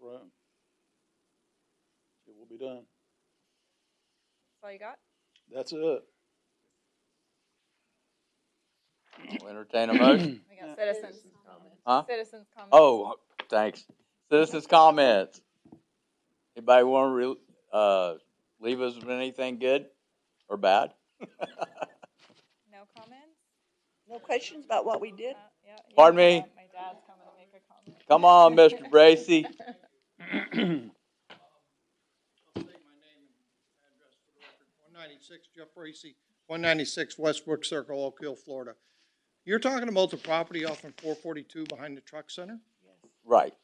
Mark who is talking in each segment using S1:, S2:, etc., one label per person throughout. S1: room. It will be done.
S2: That's all you got?
S1: That's it.
S3: I'll entertain a motion.
S2: We got
S1: Yeah.
S2: citizens,
S3: Huh?
S2: citizens comments.
S3: Oh, thanks. Citizens' comments. Anybody want to re, uh, leave us with anything good or bad?
S2: No comments?
S4: No questions about what we did?
S2: Uh, yeah, yeah,
S3: Pardon
S2: my
S3: me?
S2: dad- My dad's coming to make a comment.
S3: Come on, Mr. Bracy.
S5: I'll state my name and address for the record. One ninety-six Jeff Bracy, one ninety-six Westbrook Circle, Oak Hill, Florida. You're talking about the property off on four forty-two behind the truck center?
S3: Right.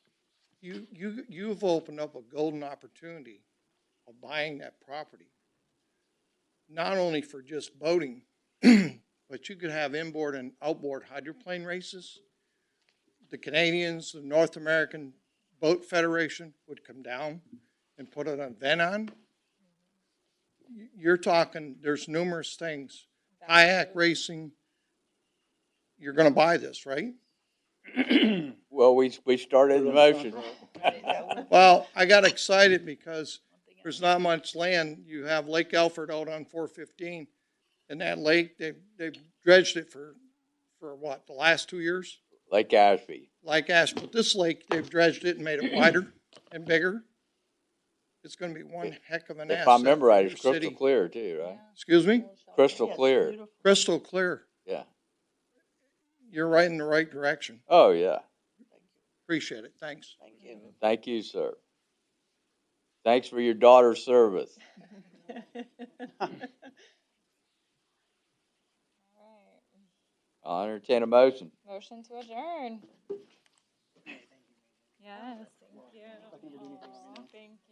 S5: You, you, you've opened up a golden opportunity of buying that property. Not only for just boating, but you could have inboard and outboard hydroplane races. The Canadians, the North American Boat Federation would come down and put an event on. You- You're talking, there's numerous things, kayak racing. You're gonna buy this, right?
S3: Well, we, we started the motion.
S5: Well, I got excited because there's not much land. You have Lake Alfred out on four fifteen. And that lake, they, they've dredged it for, for what, the last two years?
S3: Lake Ashby.
S5: Like Ash, but this lake, they've dredged it and made it wider and bigger. It's gonna be one heck of an asset.
S3: If I remember right,
S5: for
S3: it's
S5: your
S3: crystal
S5: city.
S3: clear too, right?
S2: Yeah.
S5: Excuse me?
S3: Crystal clear.
S5: Crystal clear.
S3: Yeah.
S5: You're right in the right direction.
S3: Oh, yeah.
S5: Appreciate it. Thanks.
S4: Thank you.
S3: Thank you, sir. Thanks for your daughter's service.
S2: Alright.
S3: I'll entertain a motion.
S2: Motion to adjourn. Yes, thank you. Aw, Thank